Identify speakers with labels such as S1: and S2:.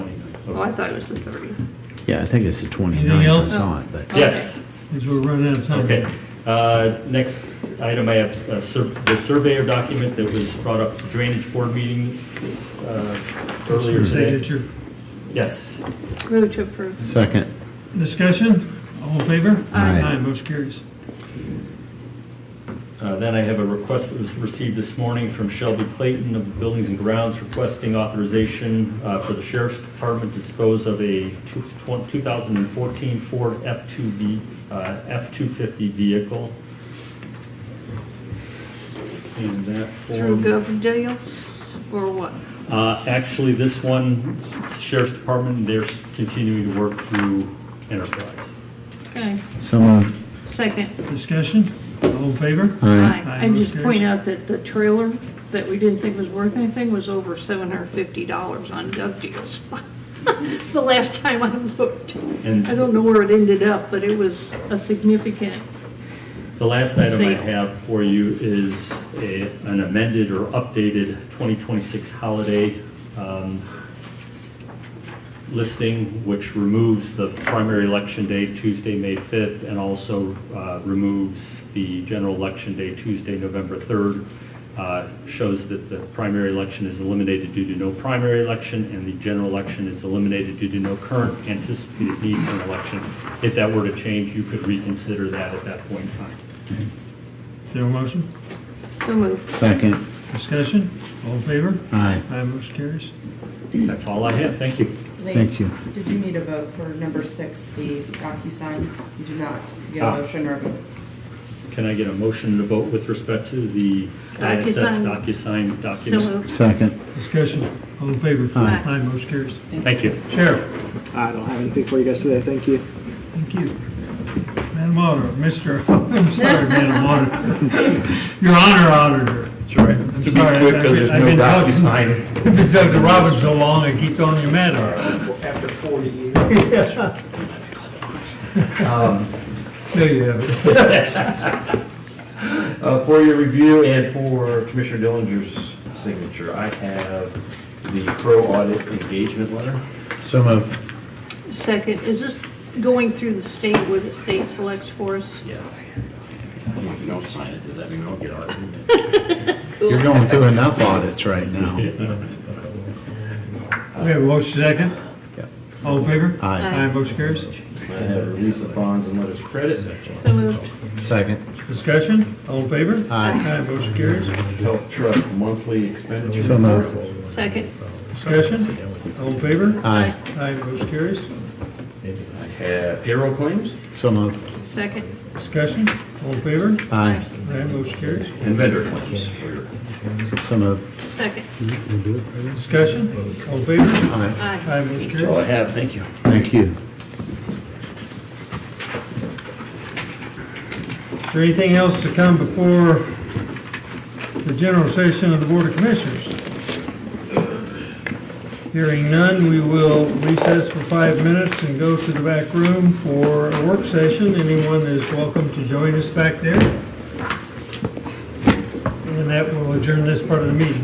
S1: Oh, I thought it was the 30.
S2: Yeah, I think it's the 29th.
S3: Anything else?
S2: I saw it, but.
S4: Yes,
S3: As we're running out of time.
S4: okay. Uh, Next item, I have uh, sur- the surveyor document that was brought up at the drainage board meeting this, uh, earlier today.
S3: Signature.
S4: Yes.
S1: Move to approve.
S2: Second,
S3: Discussion, all in favor?
S2: Aye.
S3: motion carries.
S4: Uh, Then I have a request that was received this morning from Shelby Clayton of Buildings and Grounds requesting authorization uh, for the sheriff's department to dispose of a two- tw- 2014 Ford F2V, uh, F250 vehicle. And that
S1: Through
S4: form,
S1: gov deals or what?
S4: uh, actually, this one, sheriff's department, they're continuing to work through Enterprise.
S1: Okay.
S2: so moved.
S1: Second.
S3: Discussion, all in favor?
S2: Aye.
S3: Aye,
S1: And
S3: motion
S1: just
S3: carries.
S1: point out that the trailer that we didn't think was worth anything was over $750 on gov deals. The last time I looked.
S4: And-
S1: I don't know where it ended up, but it was a significant,
S4: The last item I
S1: Sale.
S4: have for you is a- an amended or updated 2026 holiday um, listing, which removes the primary election day, Tuesday, May 5th, and also uh, removes the general election day, Tuesday, November 3rd. Uh, Shows that the primary election is eliminated due to no primary election, and the general election is eliminated due to no current anticipated need for an election. If that were to change, you could reconsider that at that point in time.
S3: Is there a motion?
S1: so moved.
S2: Second,
S3: Discussion, all in favor?
S2: aye.
S3: Aye, motion carries.
S4: That's all I have, thank you.
S5: Nate,
S2: Thank you.
S5: Did you need a vote for number six, the DocuSign? You did not get
S4: Ah.
S5: a motion or a vote?
S4: Can I get a motion to vote with respect to the ISS
S1: DocuSign.
S4: DocuSign
S1: So
S4: document?
S1: moved.
S2: Second,
S3: Discussion, all in favor?
S1: Aye.
S3: Aye, motion carries.
S4: Thank you.
S3: Sheriff,
S6: I don't have anything for you guys today, thank you.
S3: thank you. Madam Auditor, Mr., I'm sorry, Madam Auditor. Your Honor Auditor.
S7: Sorry, to
S3: I'm
S7: be
S3: sorry,
S7: quick,
S3: I've
S7: 'cause
S3: been-
S7: there's
S3: I've
S7: no
S3: been talking-
S7: DocuSign.
S3: I've been talking to Robert so long, I keep on your matter.
S6: After 40 years.
S2: Um,
S3: No, you haven't.
S7: Uh, For your review and for Commissioner Dillinger's signature, I have the pro audit engagement letter.
S2: so moved.
S1: Second, is this going through the state where the state selects for us?
S7: Yes. If you don't sign it, does that mean we don't get audited?
S2: You're going through enough audits right now.
S3: We have a motion second.
S2: Yep.
S3: All in favor?
S2: Aye.
S3: Aye, motion carries.
S7: I have release of bonds and letters of credit.
S1: So moved.
S2: Second,
S3: Discussion, all in favor?
S2: aye.
S3: Aye, motion carries.
S7: Health trust monthly expenditure.
S2: So moved.
S1: Second.
S3: Discussion, all in favor?
S2: Aye,
S3: Aye, motion carries.
S7: I have payroll claims
S2: so moved.
S1: Second.
S3: Discussion, all in favor?
S2: Aye,
S3: Aye, motion carries.
S7: and vendor claims. for your-
S2: so moved.
S1: Second.
S3: Discussion, all in favor?
S2: Aye,
S1: Aye.
S3: Aye, motion
S7: That's all I
S3: carries.
S7: have, thank you.
S2: thank you.
S3: Is there anything else to come before the general session of the Board of Commissioners? Hearing none, we will recess for five minutes and go to the back room for a work session. Anyone is welcome to join us back there. And that will adjourn this part of the meeting.